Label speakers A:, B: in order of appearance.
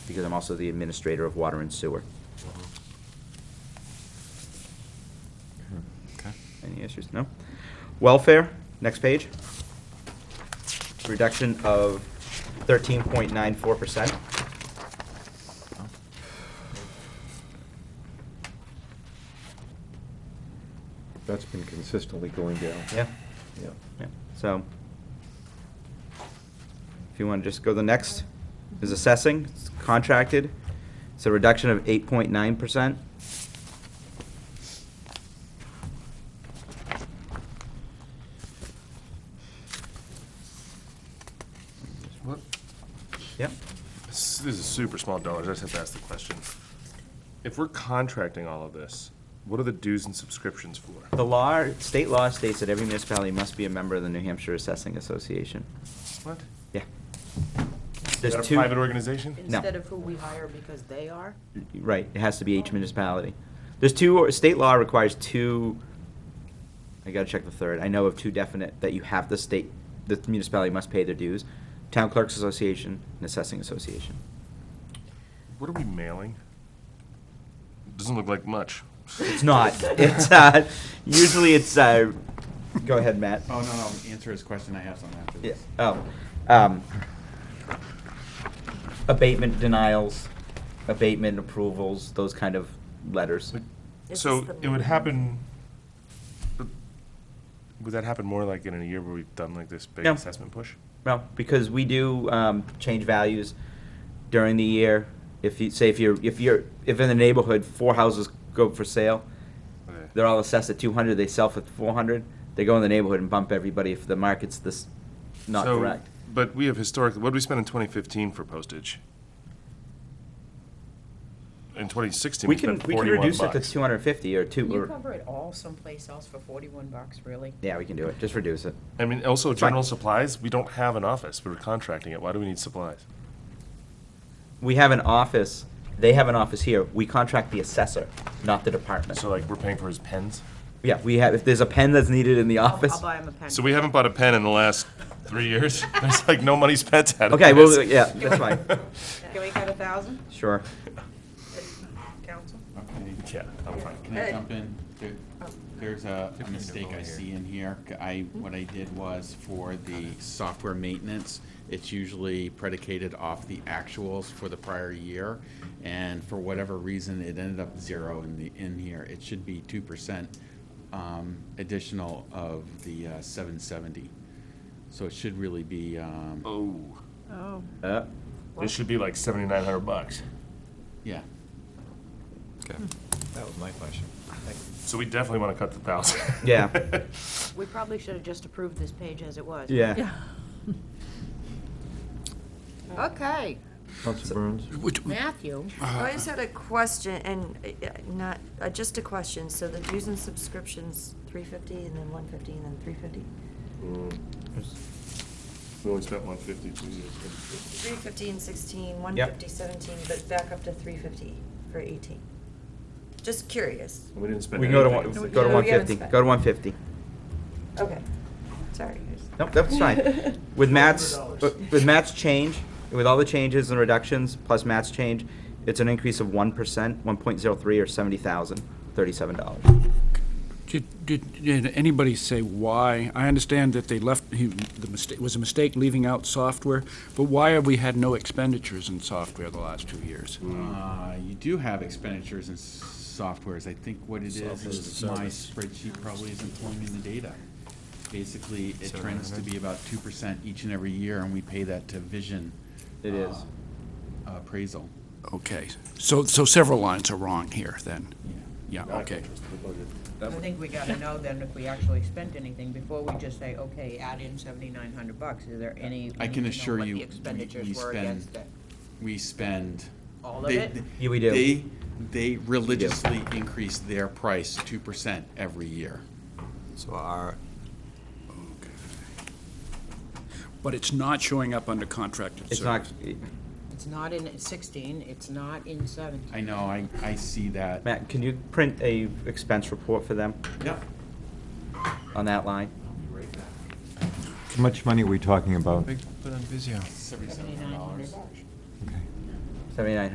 A: because I'm also the administrator of water and sewer.
B: Okay.
A: Any issues? No? Welfare, next page. Reduction of thirteen point nine four percent.
C: That's been consistently going down.
A: Yeah.
C: Yeah.
A: Yeah, So, if you want to just go to the next, is assessing, it's contracted, it's a reduction of eight point nine percent.
B: What?
A: Yep,
D: This this is super small dollars, I just have to ask the question. If we're contracting all of this, what are the dues and subscriptions for?
A: the law, state law states that every municipality must be a member of the New Hampshire Assessing Association.
D: What?
A: Yeah.
D: Is
A: There's
D: that a
A: two-
D: private organization?
A: No.
E: Instead of who we hire because they are?
A: Right, it has to be each municipality. There's two, state law requires two, I gotta check the third, I know of two definite, that you have the state, the municipality must pay their dues. Town Clerks Association and Assessing Association.
D: What are we mailing? Doesn't look like much.
A: It's not, it's, uh, usually it's, uh, go ahead, Matt.
B: Oh, no, no, answer his question, I have something after
A: Yeah,
B: this.
A: oh, um, abatement denials, abatement approvals, those kind of letters.
D: Like,
E: It's
D: So
E: just the
D: it would
E: minimum.
D: happen, but would that happen more like in a year where we've done like this big
A: No.
D: assessment push?
A: No, because we do um, change values during the year. If you, say if you're, if you're, if in the neighborhood, four houses go for sale,
D: Okay.
A: they're all assessed at two hundred, they sell for four hundred, they go in the neighborhood and bump everybody if the market's this, not
D: So-
A: correct.
D: But we have historically, what did we spend in 2015 for postage? In 2016, we
A: We can,
D: spent
A: we can
D: 41
A: reduce it to
D: bucks.
A: two hundred and fifty or two,
E: Can you
A: or,
E: cover it all someplace else for forty-one bucks, really?
A: yeah, we can do it, just reduce it.
D: I mean, also
A: It's fine.
D: general supplies, we don't have an office, we were contracting it, why do we need supplies?
A: We have an office, they have an office here, we contract the assessor, not the department.
D: So like, we're paying for his pens?
A: Yeah, we have, if there's a pen that's needed in the
E: I'll-
A: office.
E: I'll buy him a pen.
D: So we haven't bought a pen in the last three years? There's like no money spent out of
A: Okay, well,
D: this.
A: yeah, that's fine.
E: Can we cut a thousand,
A: Sure.
E: council?
B: Okay.
D: Yeah, I'm fine.
B: Can I jump in? There- There's a a mistake I see in here. C- I, what I did was for the software maintenance, it's usually predicated off the actuals for the prior year. And for whatever reason, it ended up zero in the, in here. It should be two percent um, additional of the uh, seven seventy. So it should really be, um,
D: Oh,
E: Oh.
A: Uh,
D: this should be like 7,900 bucks.
B: yeah.
F: Okay, that was my question.
D: So we definitely want to cut the thousand.
A: Yeah.
E: We probably should have just approved this page as it was.
A: Yeah.
G: Okay,
C: Council Burns?
E: Matthew?
G: I just had a question, and uh, uh, not, uh, just a question, so the dues and subscriptions, three fifty, and then one fifty, and then three fifty?
D: Mm. We only spent 150 two years ago.
G: Three fifty and sixteen, one
A: Yep.
G: fifty, seventeen, but back up to three fifty for eighteen. Just curious,
D: We didn't spend
A: We can go to
D: anything.
A: one, go to
G: No,
A: one
G: we haven't
A: fifty,
G: spent.
A: go to one fifty.
G: okay, sorry.
A: Nope, that's fine. With Matt's, with Matt's change, with all the changes and reductions, plus Matt's change, it's an increase of one percent, one point zero three or seventy thousand, thirty-seven dollars.
H: Did, did, did anybody say why? I understand that they left, he, the mistake, was a mistake leaving out software, but why have we had no expenditures in software the last two years?
B: Uh, You do have expenditures in s- softwares. I think what it is, is my spreadsheet probably isn't pulling in the data. Basically, it trends to be about two percent each and every year, and we pay that to Vision.
A: It is.
B: uh, Appraisal.
H: Okay, so, so several lines are wrong here, then?
B: Yeah.
H: Yeah, okay.
E: I think we gotta know then if we actually spent anything before we just say, okay, add in seventy-nine hundred bucks. Is there any? we
B: I
E: need to
B: can
E: know
B: assure
E: what
B: you,
E: the
B: we- we
E: expenditures were
B: spend-
E: against it.
B: We spend.
E: All of
B: they-
E: it?
A: Yeah, we do.
B: They, they religiously increase their price two percent every year.
F: So our,
H: But it's not showing up under contracted
A: It's not,
H: service.
E: It's not in sixteen, it's not in seventeen.
B: I know, I, I see that.
A: Matt, can you print a expense report for them
B: Yep.
A: on that line?
B: I'll be right back.
C: How much money are we talking about?
F: big, put on Vizio.
B: Seventy-seven dollars.
E: bucks.
C: Okay.
A: Seventy-nine